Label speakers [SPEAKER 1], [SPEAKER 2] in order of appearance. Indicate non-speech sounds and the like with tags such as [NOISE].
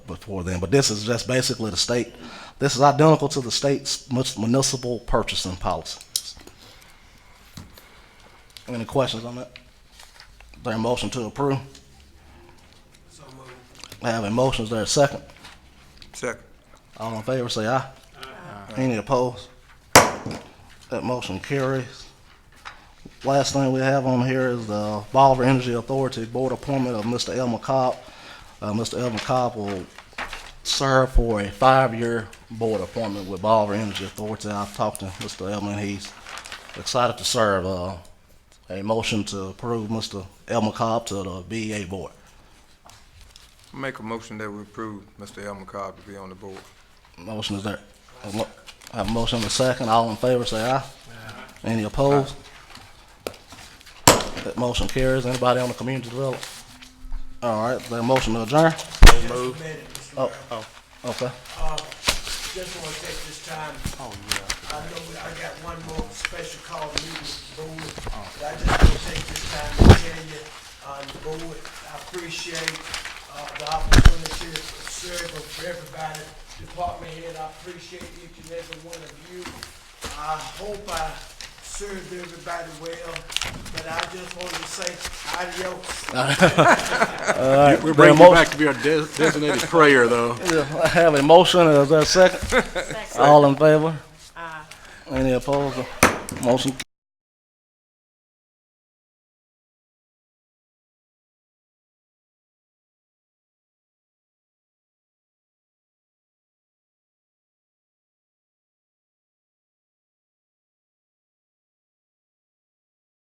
[SPEAKER 1] before then, but this is just basically the state, this is identical to the state's mus- municipal purchasing policies. Any questions on that? Is There a motion to approve? I have a motion, is there a second?
[SPEAKER 2] Second.
[SPEAKER 1] All in favor, say aye. Any opposed? That motion carries. Last thing we have on here is the Bolivar Energy Authority Board appointment of Mr. El McCobb. Uh, Mr. El McCobb will serve for a five-year board appointment with Bolivar Energy Authority. I've talked to Mr. Elman, he's excited to serve. Uh, a motion to approve Mr. El McCobb to the BEA Board.
[SPEAKER 2] Make a motion that we approve Mr. El McCobb to be on the board.
[SPEAKER 1] Motion is there. A mo- I have a motion and a second. All in favor, say aye. Any opposed? That motion carries. Anybody on the community development? All right, that motion to adjourn?
[SPEAKER 3] Just a minute, Mr. Mayor.
[SPEAKER 1] Okay.
[SPEAKER 3] Uh, Just want to take this time. Oh, yeah. I know we- I got one more special call meeting with the board, but I just want to take this time to tell you, uh, the board, I appreciate uh, the opportunity to serve for everybody, department head, I appreciate each and every one of you. I hope I served everybody well, but I just want to say adios.
[SPEAKER 4] We
[SPEAKER 1] Bring
[SPEAKER 4] bring you
[SPEAKER 1] motion.
[SPEAKER 4] back to be our des- designated prayer, though.
[SPEAKER 1] I have a motion. [LAUGHS] Is there a second? All in favor? Any opposed? Motion